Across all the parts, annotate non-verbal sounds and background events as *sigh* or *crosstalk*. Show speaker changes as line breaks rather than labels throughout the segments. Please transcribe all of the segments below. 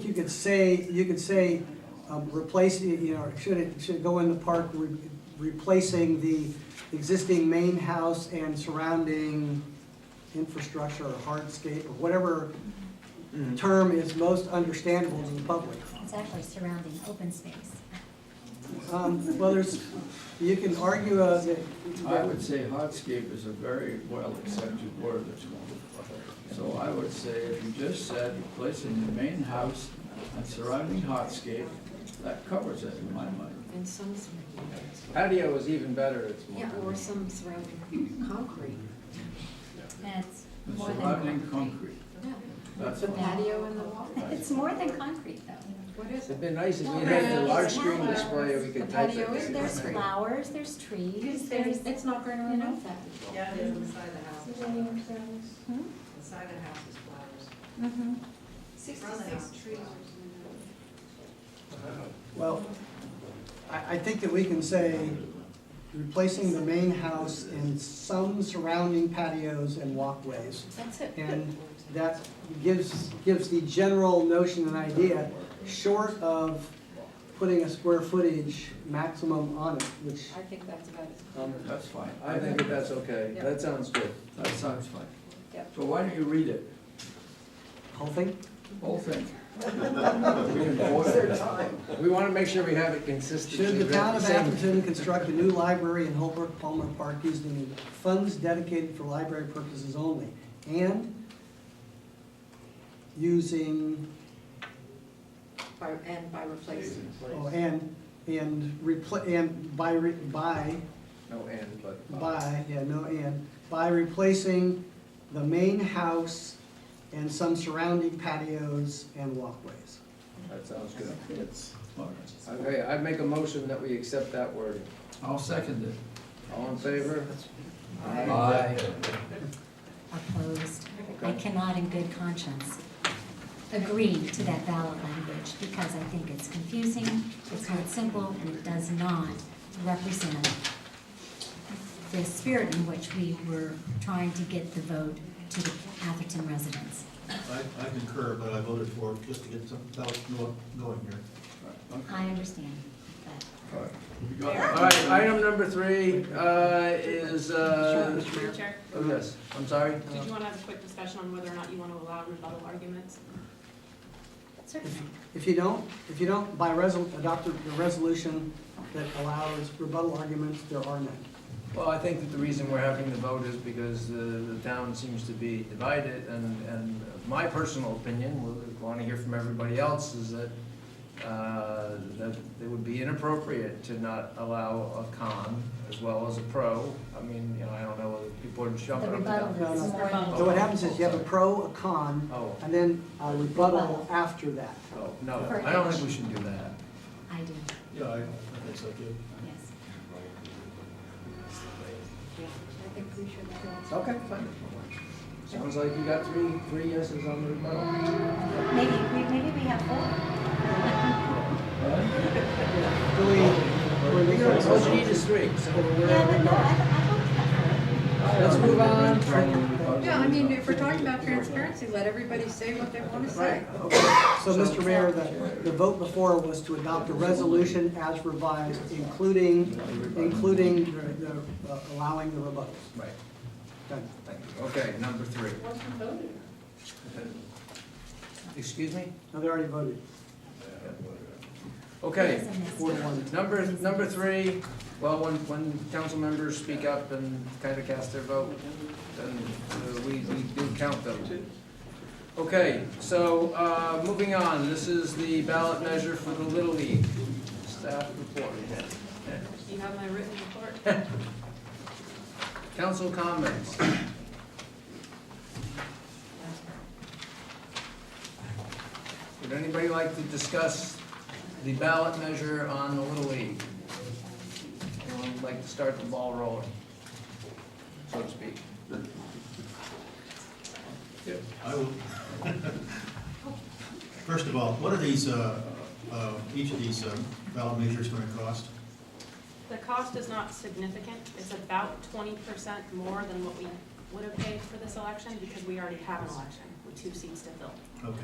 you could say, you could say, um, replace, you know, should it, should it go in the park, re- replacing the existing main house and surrounding infrastructure or hardscape or whatever
Mm-hmm.
term is most understandable to the public.
It's actually surrounding open space.
Um, Well, there's, you can argue uh, that.
I would say hardscape is a very well accepted word this morning. So I would say if you just said replacing the main house and surrounding hardscape, that covers it in my mind.
And some,
Patio is even better, it's more.
yeah, or some surrounding concrete.
That's
And
more
surrounding
than concrete.
concrete,
Yeah,
that's
the
fine.
patio and the wall.
It's more than concrete, though.
What is it?
It'd been nice if we
Well,
had the
there's
large screen
flowers.
display, we
The
could type
patio is
it.
There's
Concrete.
flowers, there's trees, there's,
It's, it's not going to
you know,
remove that.
Yeah, it is inside the house.
Hmm?
Inside the house is flowers.
mhm.
Sixty-six trees.
Well, I, I think that we can say replacing the main house and some surrounding patios and walkways.
That's it.
And that gives, gives the general notion and idea, short of putting a square footage maximum on it, which,
I think that's about it.
Um,
That's fine.
I think that that's okay,
Yeah.
that sounds good.
That sounds fine.
Yep.
So why don't you read it,
whole thing.
whole thing? We can vote on it.
We want to make sure we have it
Should
consistently.
the town of
written.
Atherton construct a new library in Holbrook Palmer Park using funds dedicated for library purposes only? And using,
By, and by replacing.
oh, and, and repla, and by, re- by
No and, but.
By, yeah, no and, by replacing the main house and some surrounding patios and walkways.
That sounds good.
All right.
Okay, I'd make a motion that we accept that wording.
I'll second it.
All in favor?
Aye.
opposed. I
Okay.
cannot in good conscience agree to that ballot language because I think it's confusing, it's not simple, and it does not represent the spirit in which we were trying to get the vote to the Atherton residents.
I, I concur, but I voted for it just to get some thoughts go- going here.
I understand, but
All right. We got it.
All right, item number three uh, is, uh,
Madam Chair,
oh, yes, I'm sorry?
did you want to have a quick discussion on whether or not you want to allow rebuttal arguments?
certainly.
If you don't, if you don't, by resol, adopt a a resolution that allows rebuttal arguments, there are none.
Well, I think that the reason we're having the vote is because the, the town seems to be divided, and, and my personal opinion, we want to hear from everybody else, is that, uh, that it would be inappropriate to not allow a con as well as a pro. I mean, you know, I don't know whether people are
The
jumping up and down.
rebuttal is more than.
So what happens is you have a pro, a con,
Oh,
and then a rebuttal after that.
oh, no, I don't think we should do that.
I do,
Yeah, I, I think so too.
yes.
I think we should. go.
Okay, fine. Sounds like you got three, three yeses on the rebuttal.
Maybe, we- maybe we have four.
Really, really-
Motion is three, so we're.
Yeah, but no, I, I don't have four.
Let's move on.
Yeah, I mean, if we're talking about transparency, let everybody say what they want to say.
Right, okay.
So, Mr. Mayor, the, the vote before was to adopt a resolution as revised, including, including the, the, uh, allowing the rebuttals.
Right,
Done.
thank you. Okay, number three. Excuse me?
No, they already voted.
Okay,
It's a mess.
Four to one.
number, number three, well, when, when council members speak up and kind of cast their vote, then uh, we, we do count them. Okay, so, uh, moving on, this is the ballot measure for the Little League staff report.
Do you have my written report?
Council comments. Would anybody like to discuss the ballot measure on the Little League? Anyone would like to start the ball rolling, so to speak?
I will. *laughs* First of all, what are these, uh, uh, each of these um, ballot measures going to cost?
The cost is not significant. It's about twenty percent more than what we would have paid for this election because we already have an election with two seats to fill.
Okay.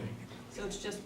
So it's just